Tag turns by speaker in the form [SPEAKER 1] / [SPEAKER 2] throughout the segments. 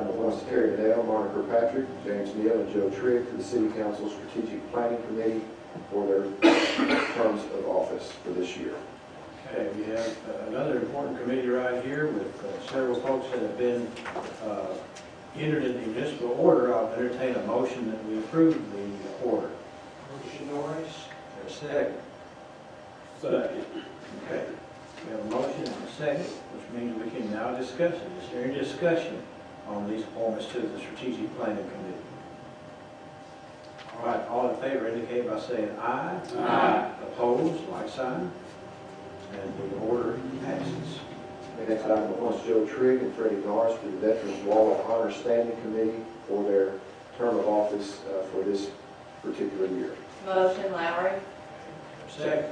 [SPEAKER 1] appointments to Terry Dale, Monica Patrick, James Neal, and Joe Trigg to the City Council Strategic Planning Committee for their terms of office for this year.
[SPEAKER 2] Okay, we have uh, another important committee right here with uh, several folks that have been uh, entered into municipal order. I'll entertain a motion that we approve the order. Motion Norris. There's a second. Second. Okay, we have a motion and a second, which means we can now discuss it. Is there any discussion on these appointments to the strategic planning committee? All right, all in favor indicate by saying aye. Aye. Opposed, like sign. And the order passes.
[SPEAKER 1] The next item appoints Joe Trigg and Freddie Norris to the Veterans Wall of Honor Standing Committee for their term of office uh, for this particular year.
[SPEAKER 3] Motion Lowry.
[SPEAKER 2] Second.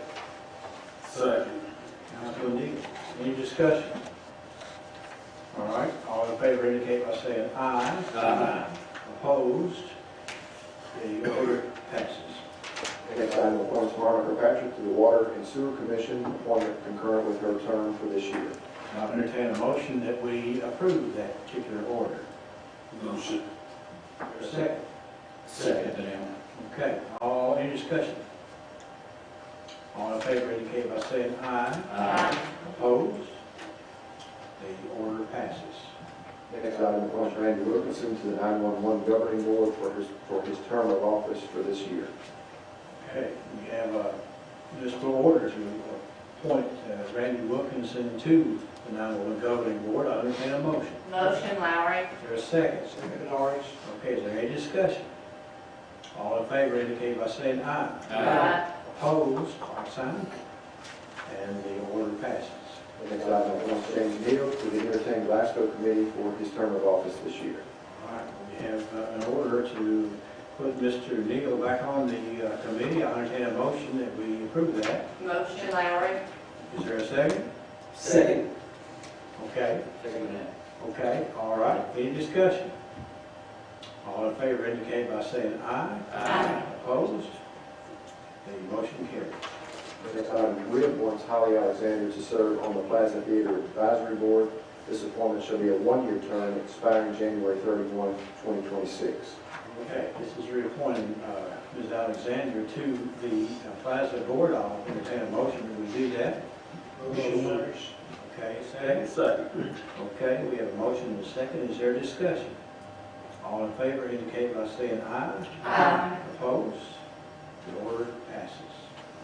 [SPEAKER 2] Second. Councilman Dean, any discussion? All right, all in favor indicate by saying aye. Aye. Opposed, the order passes.
[SPEAKER 1] The next item appoints Monica Patrick to the Water and Sewer Commission, appointment concurrent with her term for this year.
[SPEAKER 2] I'll entertain a motion that we approve that particular order.
[SPEAKER 4] Motion.
[SPEAKER 2] Second.
[SPEAKER 4] Second, Dale.
[SPEAKER 2] Okay, all, any discussion? All in favor indicate by saying aye. Opposed? The order passes.
[SPEAKER 1] The next item appoints Randy Wilkinson to the 911 Governing Board for his, for his term of office for this year.
[SPEAKER 2] Okay, we have a municipal order to appoint uh, Randy Wilkinson to the 911 governing board. I entertain a motion.
[SPEAKER 3] Motion Lowry.
[SPEAKER 2] Is there a second? Second, Norris. Okay, is there any discussion? All in favor indicate by saying aye.
[SPEAKER 3] Aye.
[SPEAKER 2] Opposed, like sign. And the order passes.
[SPEAKER 1] The next item appoints James Neal to the Entertained Glasgow Committee for his term of office this year.
[SPEAKER 2] All right, we have uh, an order to put Mr. Neal back on the uh, committee. I entertain a motion that we approve that.
[SPEAKER 3] Motion Lowry.
[SPEAKER 2] Is there a second?
[SPEAKER 4] Second.
[SPEAKER 2] Okay.
[SPEAKER 4] Second, Dale.
[SPEAKER 2] Okay, all right, any discussion? All in favor indicate by saying aye.
[SPEAKER 3] Aye.
[SPEAKER 2] Opposed? The motion carries.
[SPEAKER 1] The next item reappoints Holly Alexander to serve on the Plaza Theater Advisory Board. This appointment shall be a one-year term expiring January 31, 2026.
[SPEAKER 2] Okay, this is reappointing uh, Ms. Alexander to the uh, Plaza Board. I'll entertain a motion that we do that. Motion. Okay, second? Second. Okay, we have a motion and a second. Is there discussion? All in favor indicate by saying aye.
[SPEAKER 3] Aye.
[SPEAKER 2] Opposed? The order passes.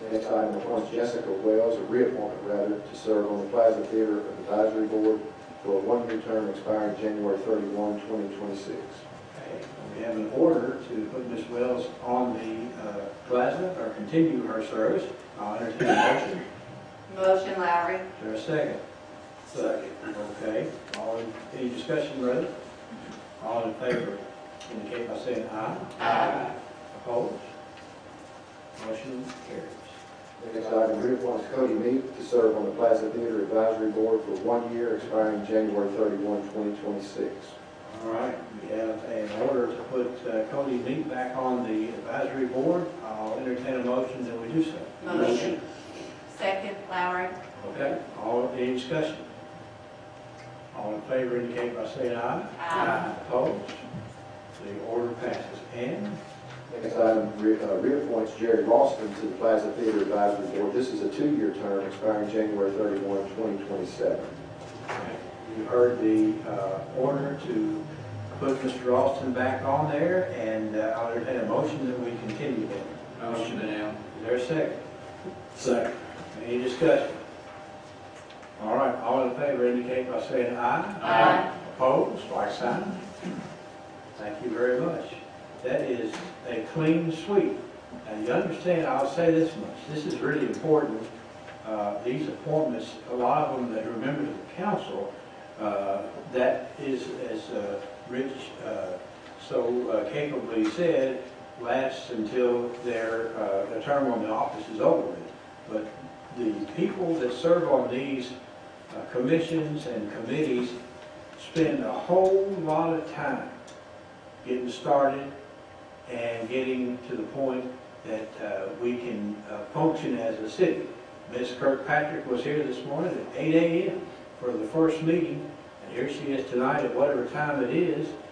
[SPEAKER 1] The next item appoints Jessica Wells, a reappointment rather, to serve on the Plaza Theater Advisory Board for a one-year term expiring January 31, 2026.
[SPEAKER 2] Okay, We have an order to put Ms. Wells on the uh, plaza or continue her service. I'll entertain a motion.
[SPEAKER 3] Motion Lowry.
[SPEAKER 2] Is there a second? Second. Okay, all, in- any discussion, brother? All in favor, indicate by saying aye.
[SPEAKER 3] Aye.
[SPEAKER 2] Opposed? Motion carries.
[SPEAKER 1] The next item reappoints Cody Meek to serve on the Plaza Theater Advisory Board for one year expiring January 31, 2026.
[SPEAKER 2] All right, we have an order to put uh, Cody Meek back on the advisory board. I'll entertain a motion that we do so.
[SPEAKER 3] Motion. Second Lowry.
[SPEAKER 2] Okay, all, any discussion? All in favor indicate by saying aye.
[SPEAKER 3] Aye.
[SPEAKER 2] Opposed? The order passes. And,
[SPEAKER 1] Next item re- uh, reappoints Jerry Ralston to the Plaza Theater Advisory Board. This is a two-year term expiring January 31, 2027.
[SPEAKER 2] you heard the uh, order to put Mr. Austin back on there, and uh, I'll entertain a motion that we continue that. Is
[SPEAKER 4] Motion, Dale.
[SPEAKER 2] there a second?
[SPEAKER 4] Second.
[SPEAKER 2] Any discussion? All right, all in favor indicate by saying aye.
[SPEAKER 3] Aye.
[SPEAKER 2] Opposed, like sign. Thank you very much. That is a clean sweep. Now, you understand, I'll say this much, this is really important. Uh, These appointments, a lot of them that are members of the council, uh, that is, as uh, Rich uh, so uh, capably said, lasts until their, uh, their term on the office is over with. But the people that serve on these uh, commissions and committees spend a whole lot of time getting started and getting to the point that uh, we can uh, function as a city. Ms. Kirkpatrick was here this morning at 8 a.m. for the first meeting, and here she is tonight at whatever time it is,